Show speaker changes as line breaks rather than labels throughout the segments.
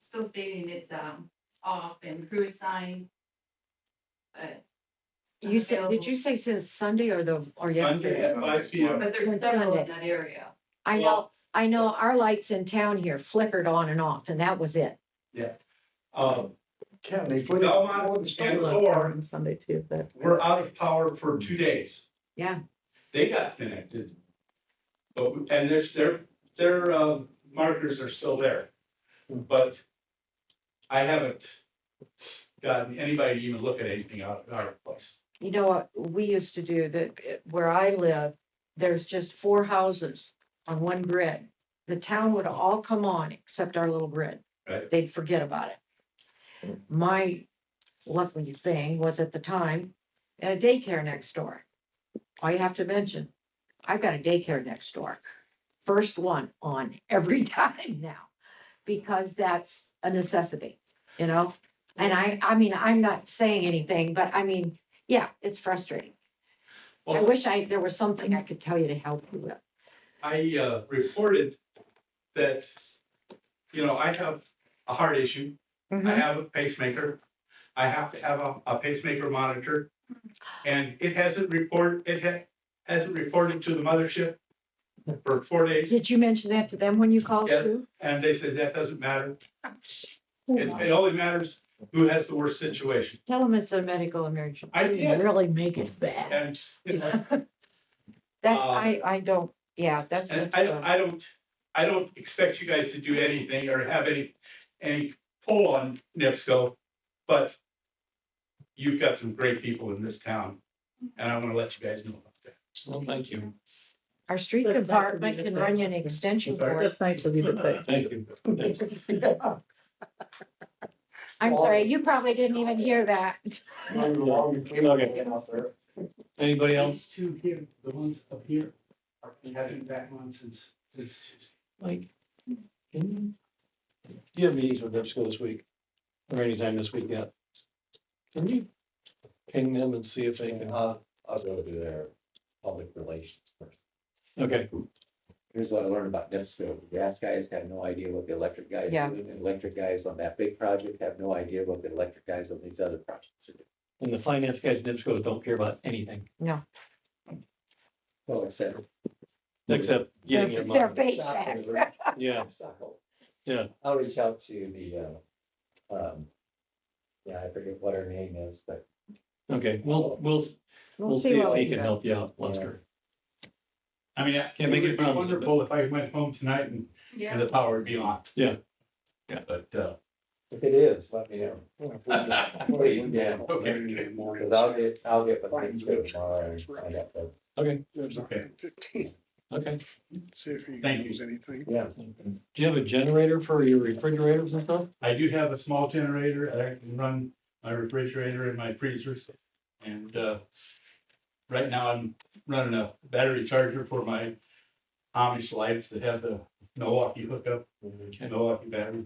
still stating it's, um, off and crew is signed. But,
You said, did you say since Sunday or the, or
Sunday
yesterday?
at five P M.
but there's several in that area.
I know, I know our lights in town here flickered on and off and that was it.
Um,
Ken, they put it before the
Belmont and
storm.
Thor
on Sunday too, but.
were out of power for two days.
Yeah.
They got connected. But, and their, their, their, uh, markers are still there. But I haven't gotten anybody to even look at anything out of our place.
You know what, we used to do that, where I live, there's just four houses on one grid. The town would all come on except our little grid.
Right.
They'd forget about it. My lucky thing was at the time, a daycare next door. All you have to mention, I've got a daycare next door. First one on every time now, because that's a necessity, you know? And I, I mean, I'm not saying anything, but I mean, yeah, it's frustrating. I
Well-
wish I, there was something I could tell you to help you with.
I uh, reported that, you know, I have a heart issue. I have a pacemaker. I have to have a- a pacemaker monitor. And it hasn't report, it ha- hasn't reported to the mothership for four days.
Did you mention that to them when you called
Yes.
too?
And they says that doesn't matter. It, it only matters who has the worst situation.
Tell them it's a medical emergency.
I did,
Really make it bad.
and, you know,
That's,
Uh,
I, I don't, yeah, that's.
and
not
I,
good.
don't- I don't, I don't expect you guys to do anything or have any, any pull on NIPSCO, but you've got some great people in this town, and I want to let you guys know about that.
Well, thank you.
Our street
That's nice of you
department
to
can
say.
run you an extension cord.
That's nice of you to say.
Thank you.
I'm sorry, you probably didn't even hear that.
Not even long and clean
Okay.
it out there.
Anybody else?
two here, the ones up here, are having that one since, since Tuesday.
Mike? can you- Do you have meetings with NIPSCO this week? Or anytime this week yet? Can you ping them and see if they can?
Uh, I was gonna do their public relations first.
Okay,
Here's what I learned about NIPSCO. The gas guys have no idea what the electric guys
Yeah.
do. and the Electric guys on that big project have no idea what the electric guys on these other projects are doing.
and the finance guys, at NIPSCOs don't care about anything
Well, except.
except getting your
They're
money.
bait
Shock
sack.
alert.
Yeah,
Suckle.
Yeah.
I'll reach out to the, uh, um, yeah, I forget what her name is, but
okay. We'll, we'll, we'll see
what
if
we
he can
do.
help you out, Lester.
I mean, I-
Can't
it
make any
would be
promises, but-
wonderful if I went home tonight and, and
Yeah,
the power would be on.
Yeah.
Yeah, but, uh,
if it is, let me know. Please, yeah,
okay,
because I'll get, I'll get with NIPSCO tomorrow and find out the
Okay,
okay,
okay.
See if you
Thank you.
anything.
Yeah.
Do you have a generator for your refrigerators and stuff?
I do have a small generator. I can run my refrigerator and my freezers. And uh, right now I'm running a battery charger for my Amish lights that have the Milwaukee hookup, Milwaukee battery.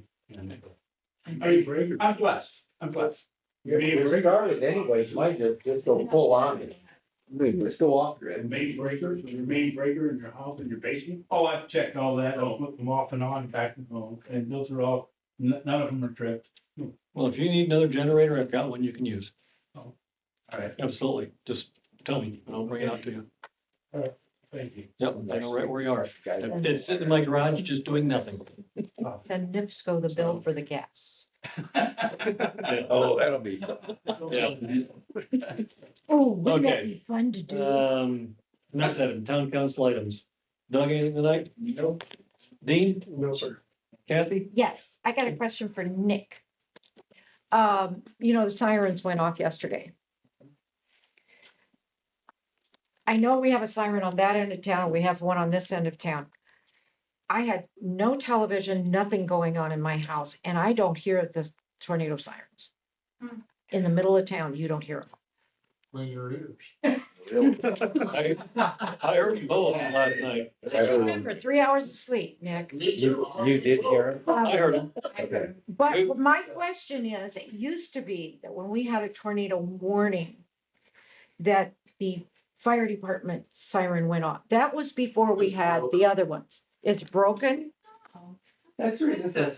And Are you brave? I'm blessed. I'm blessed.
You're,
Maybe
you're
break-
started anyways, you might just, just go full on it, just go off grid.
main breakers, your main breaker in your house, in your basement? Oh, I've checked all that. I'll hook them off and on back and home. And those are all, n- none of them are tripped.
Well, if you need another generator, I've got one you can use.
All right,
Absolutely. Just tell me and I'll bring it out to you.
thank you.
Yep, I know right where you are.
Guys,
It's sitting in my garage, just doing nothing.
Send NIPSCO the bill for the gas.
Oh,
that'll be.
Yeah.
Oh,
wouldn't that Okay.
be fun to
Um, enough said, town council items. Doug, anything tonight? No. Dean,
No, sir.
Kathy?
Yes, I got a question for Nick. Um, you know, the sirens went off yesterday. I know we have a siren on that end of town, we have one on this end of town. I had no television, nothing going on in my house, and I don't hear the tornado sirens.
Hmm.
In the middle of town, you don't hear them.
Clean your ears.
I, I heard you both last night.
Just remember, three hours of sleep, Nick.
You, you did hear him?
I heard them.
Okay.
But
Good.
my question is, it used to be that when we had a tornado warning, that the fire department siren went off. That was before we had the other ones. It's broken.
Oh.
That's the reason it says